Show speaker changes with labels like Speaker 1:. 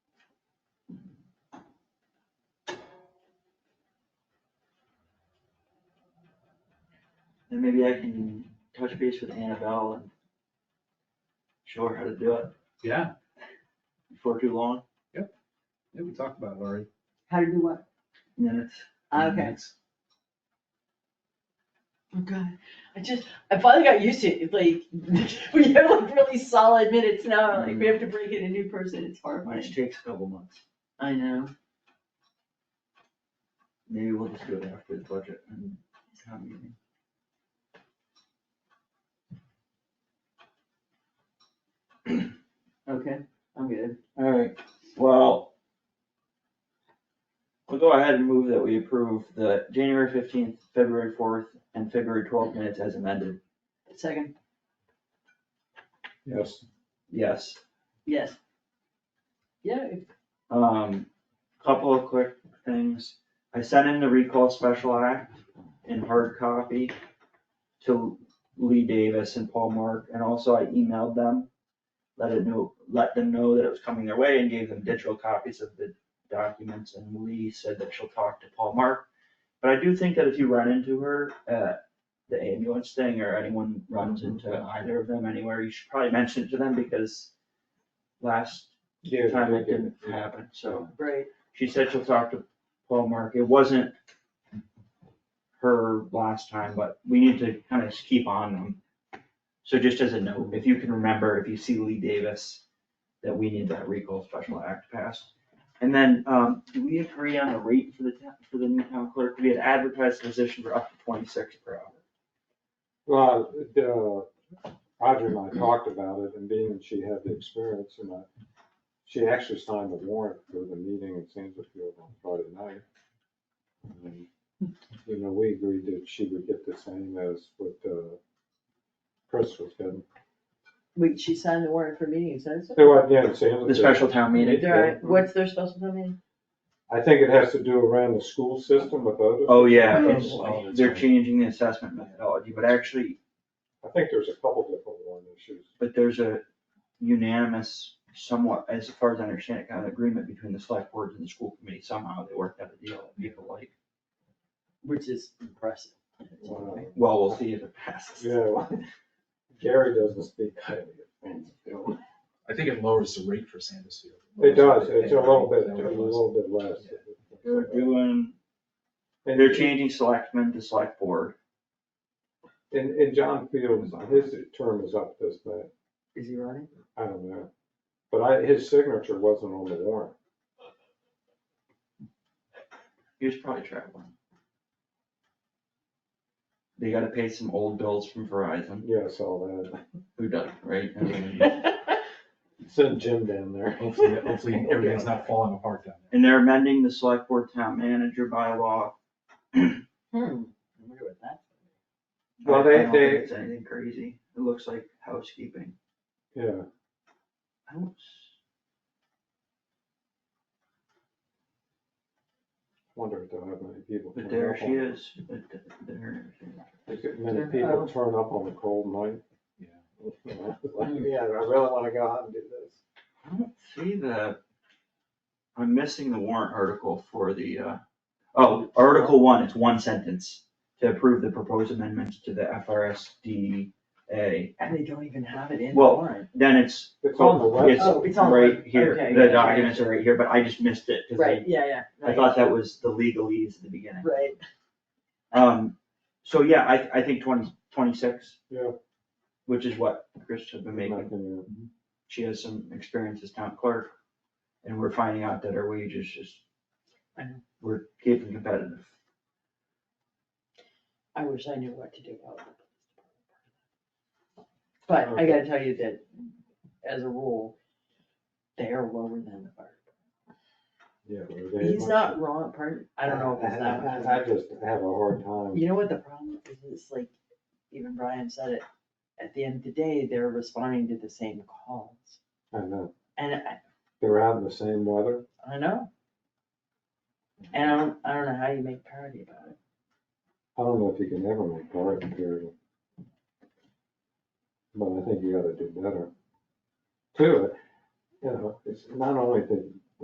Speaker 1: And maybe I can touch base with Annabelle and show her how to do it
Speaker 2: Yeah,
Speaker 1: before too long,
Speaker 2: yeah, we talked about it already.
Speaker 3: How to do what? Ah,
Speaker 1: minutes.
Speaker 3: Okay.
Speaker 2: It's-
Speaker 3: Oh, God. I just, I finally got used to it, like, we have like really solid minutes now, like, we have to break in a new person, it's horrifying.
Speaker 1: Which takes a couple months.
Speaker 3: I know.
Speaker 1: Maybe we'll just do it after the budget and town meeting.
Speaker 3: Okay, I'm good.
Speaker 1: Alright, well. We'll go ahead and move that we approve the January fifteenth, February fourth, and February twelfth minutes as amended.
Speaker 3: Second,
Speaker 2: Yes.
Speaker 1: Yes,
Speaker 3: yes. Yeah, if-
Speaker 1: um, couple of quick things. I sent in the recall special act in hard copy to Lee Davis and Paul Mark, and also I emailed them. Let it know, let them know that it was coming their way and gave them digital copies of the documents, and Lee said that she'll talk to Paul Mark. But I do think that if you run into her at the ambulance thing, or anyone runs into either of them anywhere, you should probably mention it to them, because last
Speaker 4: Yeah,
Speaker 1: time
Speaker 4: they
Speaker 1: it
Speaker 4: did.
Speaker 1: didn't happen, so.
Speaker 3: right,
Speaker 1: She said she'll talk to Paul Mark, it wasn't her last time, but we need to kind of keep on them. So just as a note, if you can remember, if you see Lee Davis, that we need that recall special act passed. And then, um, do we agree on a rate for the town, for the new town clerk? We had advertised the position for up to twenty-six per hour.
Speaker 4: Well, the, Audrey and I talked about it, and being that she had the experience, and I, she actually signed the warrant for the meeting in Sandersfield on Friday night. And, You know, we agreed that she would get the same as what, uh, Chris was getting.
Speaker 3: wait, she signed the warrant for meetings, that's.
Speaker 4: They were, yeah, in Sanders-
Speaker 1: The special town meeting.
Speaker 3: Right, what's their special meeting?
Speaker 4: I think it has to do around the school system with Otis.
Speaker 1: Oh, yeah, it's-
Speaker 4: Oh,
Speaker 1: they're changing the assessment methodology, but actually,
Speaker 4: I think there's a couple different warrant issues.
Speaker 1: but there's a unanimous, somewhat, as far as I understand it, kind of agreement between the select board and the school committee, somehow they worked out a deal that people like.
Speaker 3: Which is impressive.
Speaker 4: Wow.
Speaker 1: Well, we'll see if it passes.
Speaker 4: Yeah, well, Gary doesn't speak highly of Sandersfield.
Speaker 2: I think it lowers the rate for Sandusky.
Speaker 4: It does, it's a little bit, a little bit less.
Speaker 1: They're doing,
Speaker 4: And
Speaker 1: they're changing selectmen to select board,
Speaker 4: And, and John Fields, his term is up this May,
Speaker 3: Is he running?
Speaker 4: I don't know, but I, his signature wasn't on the warrant.
Speaker 1: he was probably traveling. They gotta pay some old bills from Verizon,
Speaker 4: Yeah, I saw that.
Speaker 1: who doesn't, right? I mean,
Speaker 4: Sent Jim down there.
Speaker 2: Hopefully, hopefully everything's not falling apart down there.
Speaker 1: And they're amending the select board town manager bylaw.
Speaker 3: Hmm, I wonder what that's.
Speaker 4: Well,
Speaker 1: I-
Speaker 4: they-
Speaker 1: I don't think
Speaker 4: they-
Speaker 1: It's anything crazy, it looks like housekeeping.
Speaker 4: Yeah,
Speaker 1: I don't s-
Speaker 4: wonder if there are many people.
Speaker 1: But
Speaker 4: turn
Speaker 1: there
Speaker 4: up
Speaker 1: she
Speaker 4: on-
Speaker 1: is, but th- there. she is.
Speaker 4: Is it Many
Speaker 3: Oh.
Speaker 4: people turn up on a cold night.
Speaker 2: Yeah.
Speaker 4: Yeah, I really wanna go out and do this.
Speaker 1: I don't see the, I'm missing the warrant article for the, uh, oh, Article one, it's one sentence. To approve the proposed amendments to the FRSDA,
Speaker 3: And they don't even have it in the
Speaker 1: Well,
Speaker 3: warrant.
Speaker 1: then it's,
Speaker 4: It's on the
Speaker 1: it's
Speaker 4: website.
Speaker 3: Oh, it's on-
Speaker 1: right here,
Speaker 3: okay,
Speaker 1: the
Speaker 3: yeah.
Speaker 1: documents are right here, but I just missed it, cause
Speaker 3: Right,
Speaker 1: I,
Speaker 3: yeah, yeah.
Speaker 1: I thought that was the legalese at the beginning.
Speaker 3: Right,
Speaker 1: Um, so yeah, I, I think twenty, twenty-six.
Speaker 4: Yeah.
Speaker 1: Which is what Chris had been making.
Speaker 4: Making
Speaker 1: she has some experience as town clerk, and we're finding out that our wages just.
Speaker 3: I know.
Speaker 1: We're keeping competitive.
Speaker 3: I wish I knew what to do about it. But I gotta tell you that, as a rule, they are lower than the fire.
Speaker 4: it, Yeah.
Speaker 3: department.
Speaker 4: they
Speaker 3: He's
Speaker 4: must-
Speaker 3: not wrong, pardon, I don't know if it's that.
Speaker 4: I-
Speaker 3: one.
Speaker 4: I I just have a hard time.
Speaker 3: You know what the problem is, it's like, even Brian said it, at the end of the day, they're responding to the same calls.
Speaker 4: I know,
Speaker 3: And I,
Speaker 4: uh, they're out in the same weather.
Speaker 3: I know. And I don't, I don't know how you make parody about it.
Speaker 4: I don't know if you can ever make garden period. But I think you gotta do better. Two, you know, it's not only the